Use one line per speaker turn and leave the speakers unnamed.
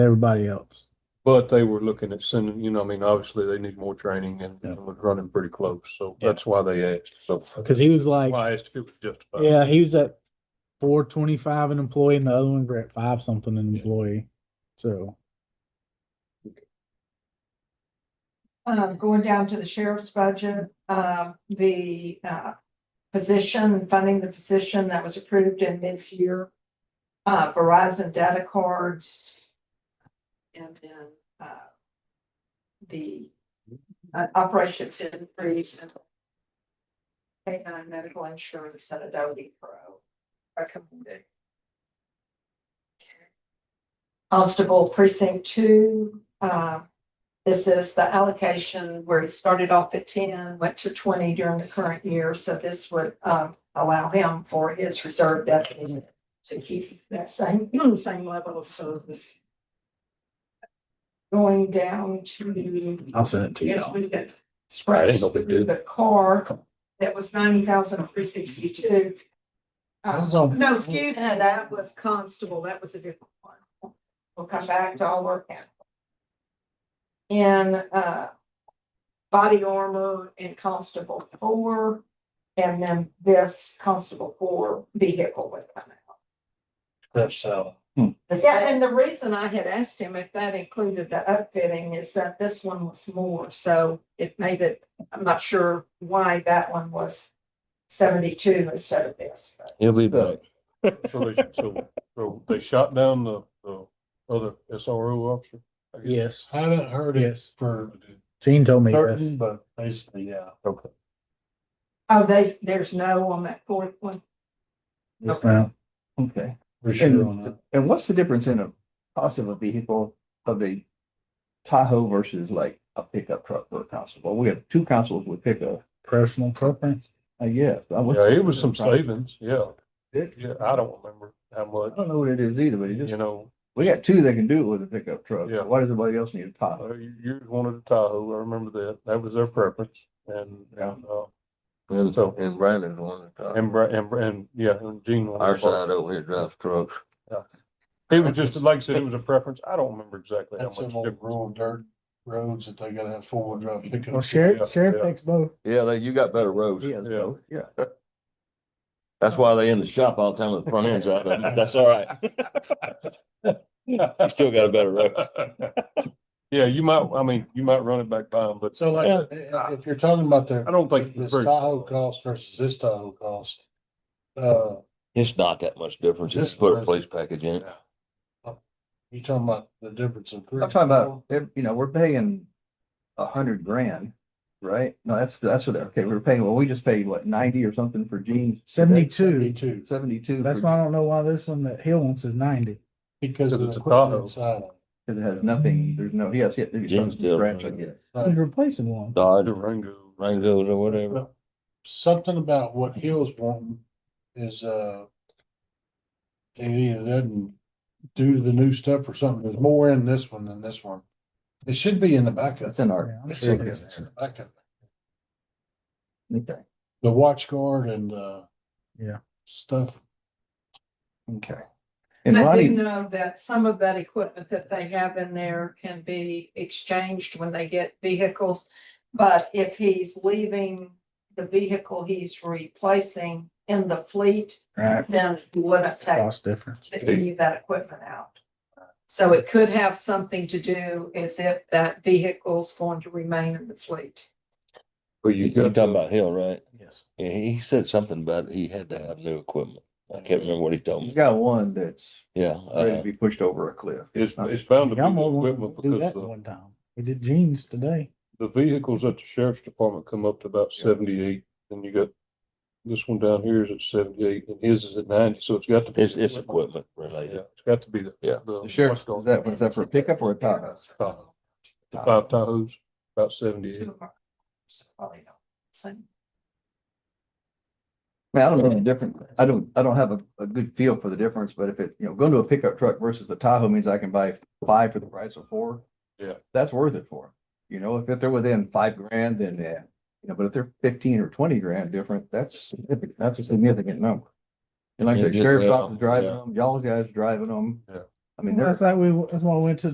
everybody else.
But they were looking at sending, you know, I mean, obviously they need more training and
Yeah.
and was running pretty close, so
Yeah.
that's why they asked, so.
Cause he was like,
Why I asked if it was justified.
yeah, he was at four twenty-five an employee and the other one were at five something an employee. So,
Uh, going down to the sheriff's budget, uh, the, uh, position, funding the position that was approved in mid-year. Uh, Verizon data cards. And then, uh, the uh, operations increase. and Pay nine medical insurance and Adobe Pro recommended. Constable precinct two, uh, this is the allocation where it started off at ten, went to twenty during the current year, so this would um allow him for his reserve deputy to keep that same, same level of service. Going down to,
I'll send it to you.
yes, we did
That
scratch
ain't no big deal.
through the car, that was ninety thousand three sixty-two. Uh, No, excuse me, that was constable, that was a different one. We'll come back to all our categories. In, uh, body armor and constable four, and then this constable four vehicle would come out.
That's how.
Yeah, and the reason I had asked him if that included the upfitting is that this one was more, so it made it, I'm not sure why that one was seventy-two instead of this, but.
He'll be
back.
So they, so, so they shot down the, the other SRO officer? I guess.
Yes,
Haven't heard it
Yes.
for
Gene told me this.
certain, but basically, yeah.
Okay.
Oh, they, there's no on that fourth one.
Yes, ma'am.
Okay,
For sure on
and,
that.
and what's the difference in a cost of a vehicle of a Tahoe versus like a pickup truck for a constable? We have two constables with pickup,
Personal preference.
I guess. I was-
Yeah, it was some savings, yeah,
It-
yeah, I don't remember how
I
much,
don't know what it is either, but it
you
just,
know,
we got two that can do it with a pickup truck.
Yeah.
So Why does everybody else need a Tahoe?
uh, you, you wanted a Tahoe, I remember that, that was their preference, and,
Yeah.
and, uh,
And,
So-
and Brandon's one that, uh,
and, Bra- and, Bra- and, yeah, and Gene. wanted
our
a Bronco.
side over here drives trucks.
It was just, like I said, it was a preference. I don't remember exactly how much
That's some old
difference.
rural dirt roads that they gotta have four wheel drive
Well,
pickup.
Yeah,
sheriff, sheriff
yeah.
takes both.
Yeah, they, you got better roads.
Yeah,
Yeah.
both, yeah.
That's why they in the shop all the time with the front ends out, but that's all right. You still got a better road.
Yeah, you might, I mean, you might run it back by them, but
So like,
Yeah.
i- if you're talking about
I
the,
don't think.
this Tahoe cost versus this Tahoe cost. Uh,
It's not that much difference. Just put a police package in it.
you talking about the difference in.
I'm talking about, ev- you know, we're paying a hundred grand, right? No, that's, that's what, they're- okay, we were paying, well, we just paid what, ninety or something for jeans?
Seventy-two.
Seventy-two,
Seventy-two.
That's
for-
why I don't know why this one that Hill wants is ninety.
because of
Because
the
it's a Tahoe.
equipment side. of
Cause it has nothing, there's no, yes, yeah. there's
Jeans
something
deal.
scratched, I guess.
it.
He's replacing one.
Dodge,
Durango.
Rangos or whatever.
But Something about what Hill's wanting is, uh. It either doesn't do the new stuff or something, there's more in this one than this one. It should be in the backup.
That's in
Yeah,
our.
I'm
It's
sure
in
it
there,
is.
in the backup.
Okay.
The watch guard and, uh.
Yeah.
Stuff.
Okay. And
I do
Ronnie,
know that some of that equipment that they have in there can be exchanged when they get vehicles. But if he's leaving the vehicle he's replacing in the fleet,
Right.
then he wouldn't take
Cost difference.
leave that equipment out. So it could have something to do as if that vehicle's going to remain in the fleet.
But
You, you talking about Hill, right?
Yes.
Yeah, he he said something about he had to have new equipment. I can't remember what he told
you
me.
got one that's
Yeah.
ready
uh,
to be pushed over a cliff.
It's, it's bound to be
Yeah, I'm
the
gonna
equipment
do
because
that
the,
one time. We did jeans today.
the vehicles at the sheriff's department come up to about seventy-eight, and you got. This one down here is at seventy-eight, and his is at ninety, so it's got to. be
It's, it's
the
equipment
Yeah,
related.
it's got to be the.
Yeah.
The
Sheriff,
watch guard.
is that, was that for a pickup or a Tahoe?
Tahoe. The five Tahoes, about seventy-eight.
Two of our- so probably not the same.
Man, I don't know the difference. I don't, I don't have a, a good feel for the difference, but if it, you know, going to a pickup truck versus a Tahoe means I can buy five for the price of four.
Yeah.
That's worth it for 'em. You know, if, if they're within five grand, then, yeah, you know, but if they're fifteen or twenty grand different, that's, significant. that's a significant number. And like
Yeah,
the
just,
sheriff's
yeah,
office driving
yeah.
them, y'all guys driving them.
Yeah.
I mean,
Well,
they're.
That's like we, that's why we went to